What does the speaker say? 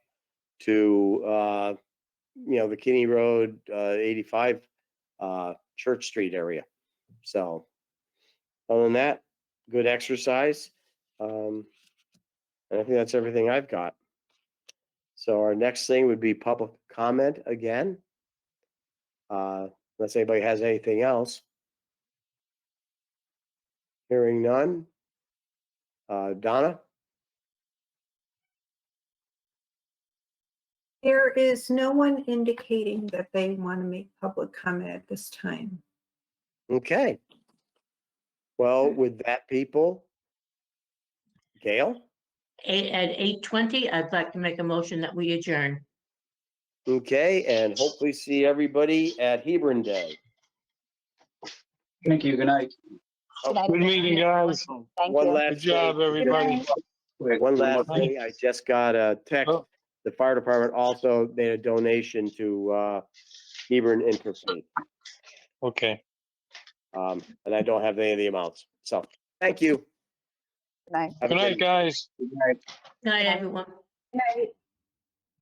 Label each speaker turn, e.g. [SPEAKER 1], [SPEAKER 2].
[SPEAKER 1] to, uh, you know, the Kinney Road, uh, eighty-five, uh, Church Street area. So, other than that, good exercise. Um, and I think that's everything I've got. So our next thing would be public comment again. Uh, unless anybody has anything else. Hearing none. Uh, Donna?
[SPEAKER 2] There is no one indicating that they want to make public comment at this time.
[SPEAKER 1] Okay. Well, with that, people, Gail,
[SPEAKER 3] Eight, at eight twenty, I'd like to make a motion that we adjourn.
[SPEAKER 1] okay, and hopefully see everybody at Hebron Day.
[SPEAKER 4] Thank you, good night.
[SPEAKER 5] Good meeting, guys. Thank
[SPEAKER 1] One
[SPEAKER 5] you.
[SPEAKER 1] last
[SPEAKER 5] Good job,
[SPEAKER 1] thing-
[SPEAKER 5] everybody.
[SPEAKER 1] One last thing, I just got a text.
[SPEAKER 5] Oh.
[SPEAKER 1] The fire department also made a donation to uh, Hebron Interfaith.
[SPEAKER 5] Okay.
[SPEAKER 1] Um, and I don't have any of the amounts. So, thank you.
[SPEAKER 6] Night.
[SPEAKER 1] Have a
[SPEAKER 5] Good night, guys.
[SPEAKER 3] Good Night, everyone.
[SPEAKER 2] Right.